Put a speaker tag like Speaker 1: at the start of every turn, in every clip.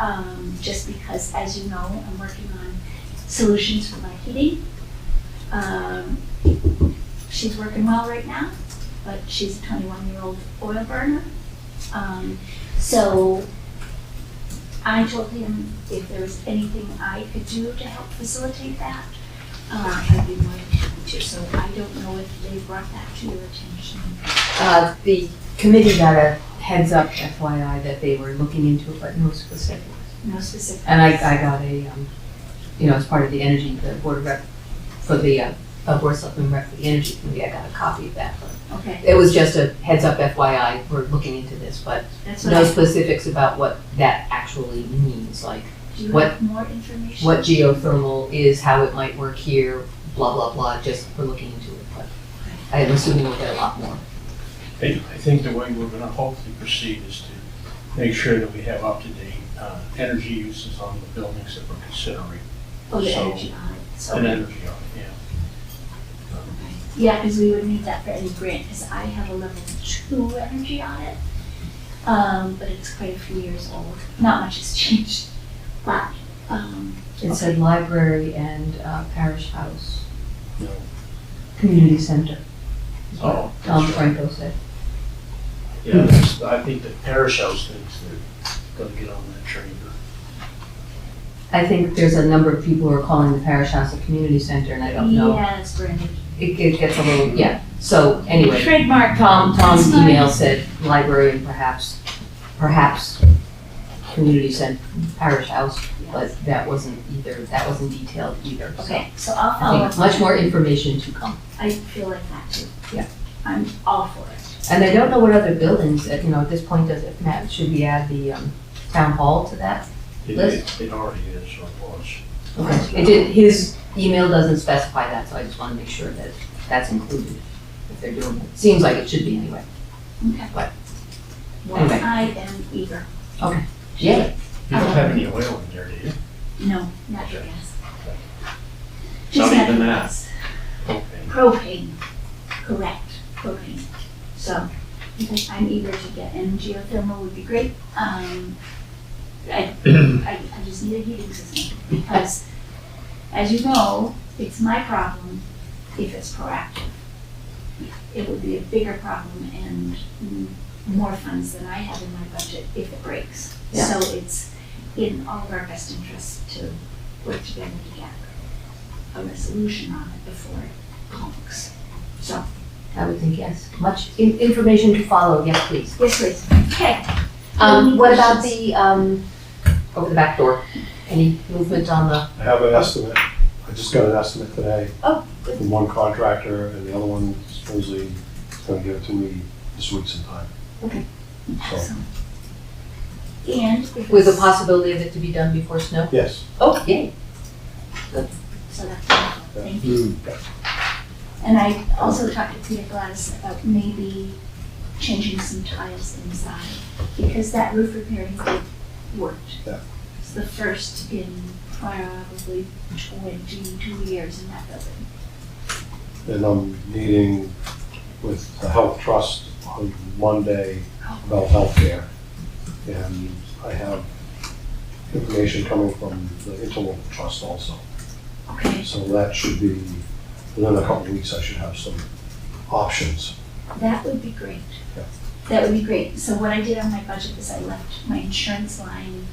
Speaker 1: um, just because, as you know, I'm working on solutions for my heating. Um, she's working well right now, but she's a 21-year-old oil burner. Um, so I told him if there was anything I could do to help facilitate that, uh, I'd be more than happy to. So I don't know if they brought that to your attention.
Speaker 2: Uh, the committee got a heads up FYI that they were looking into it, but no specifics.
Speaker 1: No specific.
Speaker 2: And I, I got a, um, you know, as part of the energy, the board of rep, for the, uh, uh, board of selectmen rep for the energy committee, I got a copy of that. but
Speaker 1: Okay,
Speaker 2: It was just a heads up FYI, we're looking into this, but
Speaker 1: that's what
Speaker 2: no
Speaker 1: I,
Speaker 2: specifics about what that actually means, like
Speaker 1: do you
Speaker 2: what-
Speaker 1: have more information?
Speaker 2: what geothermal is, how it might work here, blah, blah, blah, just we're looking into it, but I am assuming we'll get a lot more.
Speaker 3: I I think the way we're gonna hopefully proceed is to make sure that we have up-to-date uh, energy uses on the buildings that we're considering.
Speaker 1: Oh, the
Speaker 3: so-
Speaker 1: energy audit, so.
Speaker 3: And energy, on it, yeah.
Speaker 1: Yeah, because we would need that for any grant, because I have a level two energy audit. Um, but it's quite a few years old, not much has changed, but, um,
Speaker 2: It said library and uh, parish house,
Speaker 3: you know.
Speaker 2: community center, is what
Speaker 3: Oh,
Speaker 2: Tom
Speaker 3: that's right.
Speaker 2: Franco said.
Speaker 3: Yeah, that's- I think the parish house thinks they're gonna get on that train.
Speaker 2: I think there's a number of people who are calling the parish house a community center, and I don't know.
Speaker 1: yeah, it's brand new.
Speaker 2: It it gets a little, yeah, so anyway.
Speaker 1: Trademark.
Speaker 2: Tom, Tom's
Speaker 1: That's fine.
Speaker 2: email said library and perhaps, perhaps community center, parish house, but that wasn't either, that wasn't detailed either. So
Speaker 1: Okay, so I'll follow
Speaker 2: I
Speaker 1: up.
Speaker 2: think much more information to come.
Speaker 1: I feel like that too.
Speaker 2: Yeah.
Speaker 1: I'm all for it.
Speaker 2: And I don't know what other buildings, uh, you know, at this point, does it, Matt, should we add the um, town hall to that?
Speaker 3: It-
Speaker 2: Liz?
Speaker 3: It it already is, or was.
Speaker 2: Okay, it did, his email doesn't specify that, so I just wanna make sure that that's included, if they're doing it. Seems like it should be anyway.
Speaker 1: Okay.
Speaker 2: What?
Speaker 1: Well,
Speaker 2: Anyway.
Speaker 1: I am eager.
Speaker 2: Yeah,
Speaker 3: You
Speaker 1: Oh.
Speaker 3: don't have any oil in there, do you?
Speaker 1: No, not your
Speaker 3: Okay.
Speaker 1: gas.
Speaker 3: Not
Speaker 1: Just
Speaker 3: even
Speaker 1: natural
Speaker 3: that.
Speaker 1: gas.
Speaker 3: Okay.
Speaker 1: Propane, correct, propane. So, okay, I'm eager to get, and geothermal would be great. Um, I, I, I just need a heating system, because, as you know, it's my problem if it's proactive. It would be a bigger problem and mm, more funds than I have in my budget if it breaks.
Speaker 2: Yeah.
Speaker 1: So it's in all of our best interest to work together to get a resolution on it before it conks. So,
Speaker 2: I would think yes. Much in- information to follow, yes, please.
Speaker 1: yes, please. Okay,
Speaker 2: Um, what about the, um, over the back door? Any movement on the,
Speaker 4: I have an estimate, I just got an estimate today.
Speaker 1: Oh, good.
Speaker 4: From one contractor, and the other one supposedly is gonna give it to me this week sometime.
Speaker 1: Excellent. And. if
Speaker 2: with the
Speaker 1: it's-
Speaker 2: possibility of it to be done before snow?
Speaker 4: Yes.
Speaker 2: Oh, yay.
Speaker 1: So that's wonderful, thank you. And I also talked to Peter Gladys about maybe changing some tiles inside, because that roof repairing group worked.
Speaker 4: Yeah.
Speaker 1: It's the first in probably twenty-two years in that building.
Speaker 4: And I'm meeting with the Health Trust on Monday about healthcare. And I have information coming from the Interlocal Trust also.
Speaker 1: Okay,
Speaker 4: So that should be, within a couple of weeks, I should have some options.
Speaker 1: that would be great.
Speaker 4: Yeah.
Speaker 1: That would be great. So what I did on my budget is I left my insurance line,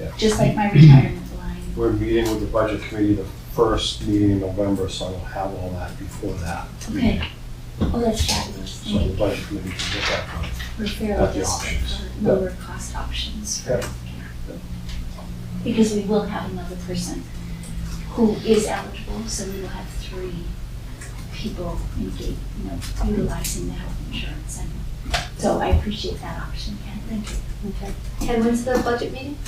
Speaker 4: Yeah.
Speaker 1: just like my retirement line.
Speaker 4: We're meeting with the budget committee the first meeting in November, so I will have all that before that.
Speaker 1: Okay. Oh, that's fabulous.
Speaker 2: Mm-hmm.
Speaker 4: So the
Speaker 1: Thank you.
Speaker 4: budget committee can get that done.
Speaker 1: We're fairly
Speaker 4: Have the
Speaker 1: desperate
Speaker 4: options.
Speaker 1: for lower cost options for
Speaker 4: Yeah.
Speaker 1: healthcare. Because we will have another person who is eligible, so we will have three people engaged, you know, utilizing the health insurance. And so I appreciate that option, Ken, thank you.
Speaker 2: And when's the budget meeting?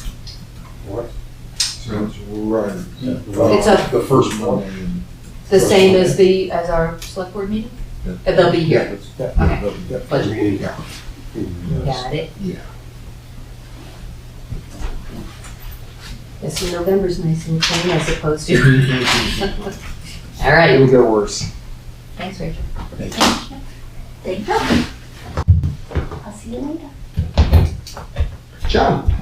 Speaker 4: What?
Speaker 5: Sounds right.
Speaker 2: Mm-hmm. It's a-
Speaker 5: The first Monday. in-
Speaker 2: The same as the, as our select board meeting? Uh, They'll be here.
Speaker 5: Yeah,
Speaker 2: Okay.
Speaker 5: they'll be-
Speaker 2: Budget.
Speaker 4: Meeting.
Speaker 5: Yeah.
Speaker 4: Meeting, yes.
Speaker 2: Got it.
Speaker 5: Yeah.
Speaker 2: Yes, so November's nice and clean as opposed to. All right,
Speaker 5: It'll get worse.
Speaker 2: thanks, Rachel.
Speaker 1: Thank you. Thank you. I'll see you later.
Speaker 5: John,